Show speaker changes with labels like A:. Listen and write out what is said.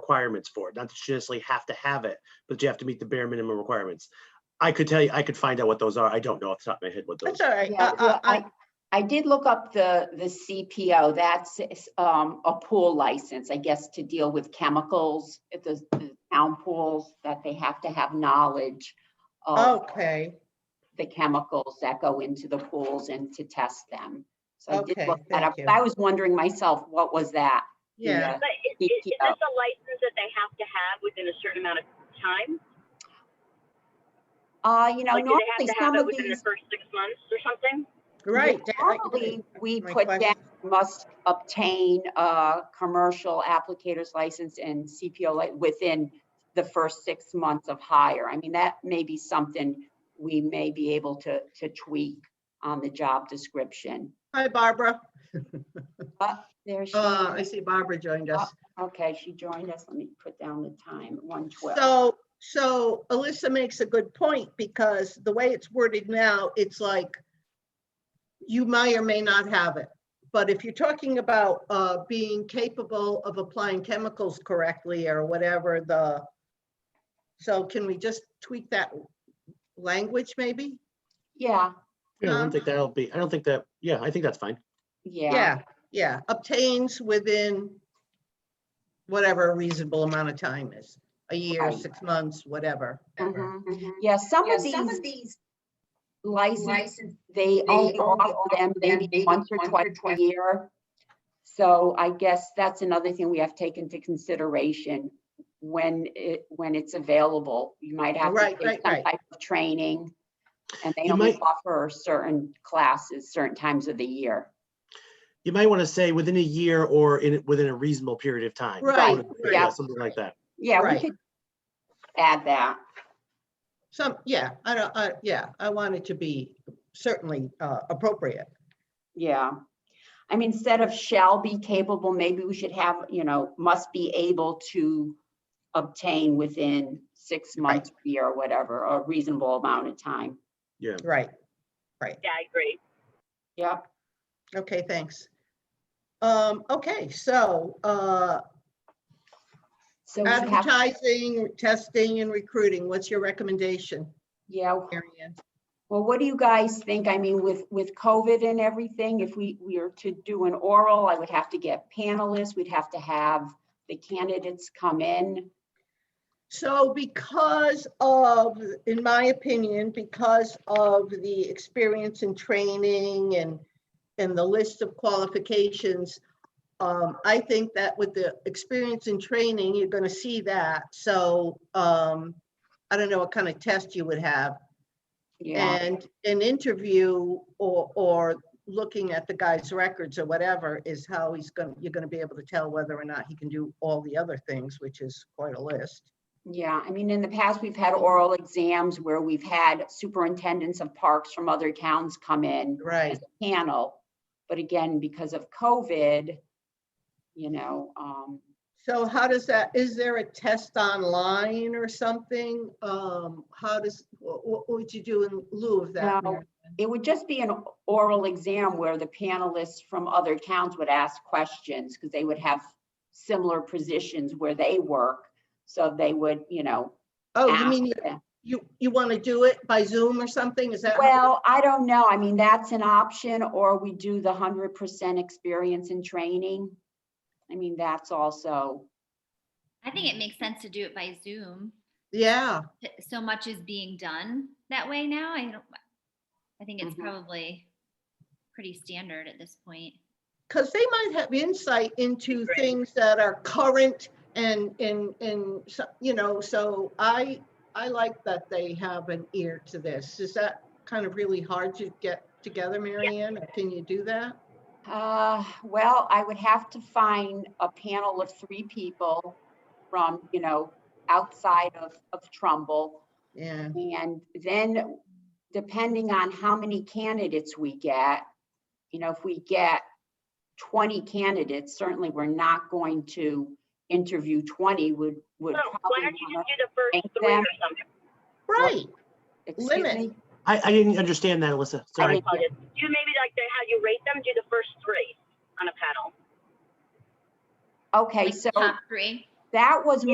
A: requirements for it. Not that you necessarily have to have it, but you have to meet the bare minimum requirements. I could tell you, I could find out what those are. I don't know off the top of my head what those.
B: That's all right.
C: Yeah,
B: Uh, uh,
C: well,
B: I,
C: I, I did look up the, the CPO, that's um, a pool license, I guess, to deal with chemicals, at the the town pools, that they have to have knowledge
B: Oh.
C: of
B: okay,
C: the chemicals that go into the pools and to test them. So I
B: Okay,
C: did look that up,
B: thank you.
C: but I was wondering myself, what was that? The,
B: yeah.
C: uh,
D: But is, is, is this a license that they have to have within a certain amount of time?
C: Uh, you know,
D: Like, do they have
C: normally some
D: to have it
C: of
D: within the
C: these,
D: first six months or something?
B: Right. that- I-
C: normally, we
B: my
C: put down
B: question-
C: must obtain a commercial applicator's license and CPO li- within the first six months of hire. I mean, that may be something we may be able to, to tweak on the job description.
B: Hi, Barbara.
C: There she,
B: Uh, I see Barbara joined us.
C: okay, she joined us. Let me put down the time, 112.
B: So, so Alyssa makes a good point because the way it's worded now, it's like you may or may not have it. But if you're talking about uh, being capable of applying chemicals correctly or whatever the, so can we just tweak that language maybe?
C: Yeah,
A: Yeah, I
B: Um,
A: don't think that'll be, I don't think that, yeah, I think that's fine.
C: yeah,
B: Yeah, yeah, obtains within whatever a reasonable amount of time is, a year,
C: Right.
B: six months, whatever. ever.
C: mhm. yeah. Some
E: Yeah,
C: of
E: some of
C: these
E: these
C: licenses,
E: licenses,
C: they
E: only
C: only offer them
E: offer them
C: maybe once or twice a year. So I guess that's another thing we have to take into consideration when it, when it's available. You might have to
B: Right,
C: take
B: right,
C: some
B: right.
C: type of training. And they
A: You
C: only
A: might-
C: offer certain classes, certain times of the year.
A: You might want to say within a year or in, within a reasonable period of time.
B: Right,
A: Something-
B: right.
A: Yeah, something like that.
C: Yeah, we
B: Right.
C: could add that.
B: Some, yeah, I don't, I, yeah, I want it to be certainly uh, appropriate.
C: Yeah. I mean, instead of shall be capable, maybe we should have, you know, must be able to obtain within six months, or year, or whatever, a reasonable amount of time.
A: Yeah.
B: Right,
D: Yeah, I agree.
C: Yep.
B: okay, thanks. Um, okay, so uh,
C: So we should have,
B: advertising, testing and recruiting, what's your recommendation?
C: yeah,
B: Mary Ann?
C: well, what do you guys think? I mean, with, with COVID and everything, if we, we are to do an oral, I would have to get panelists, we'd have to have the candidates come in.
B: So because of, in my opinion, because of the experience and training and, and the list of qualifications, um, I think that with the experience and training, you're gonna see that. So, um, I don't know what kind of test you would have
C: Yeah,
B: and an interview or, or looking at the guy's records or whatever is how he's gonna, you're gonna be able to tell whether or not he can do all the other things, which is quite a list.
C: yeah. I mean, in the past, we've had oral exams where we've had superintendents of parks from other towns come in.
B: Right.
C: as a panel. But again, because of COVID, you know, um,
B: So how does that, is there a test online or something? Um, how does, what, what would you do in lieu of that?
C: No.
B: Mary?
C: it would just be an oral exam where the panelists from other towns would ask questions because they would have similar positions where they work. So they would, you know,
B: Oh, you
C: ask
B: mean, you-
C: them.
B: you, you want to do it by Zoom or something? Is that? how-
C: Well, I don't know. I mean, that's an option, or we do the hundred percent experience and training. I mean, that's also,
F: I think it makes sense to do it by Zoom.
B: Yeah,
F: Th- So much is being done that way now. I don't, I think it's
C: Mhm.
F: probably pretty standard at this point.
B: because they might have insight into
D: Right.
B: things that are current and, and, and, so- you know, so I, I like that they have an ear to this. Is that kind of really hard to get together, Mary Ann? Or Can you do that?
C: Uh, well, I would have to find a panel of three people from, you know, outside of, of Trumbull.
B: Yeah.
C: And then depending on how many candidates we get, you know, if we get twenty candidates, certainly we're not going to interview twenty would, would
D: So why
C: probably.
D: don't you
C: wanna-
D: just do the first
C: Thank
D: three
C: them.
D: or something?
B: Right.
C: Excuse
B: limit?
C: me?
A: I, I didn't understand that, Alyssa. Sorry.
C: didn't-
D: Like, Do maybe like the, how you rate them, do the first three on a panel.
C: Okay,
F: Like
C: so,
F: top three.
C: That was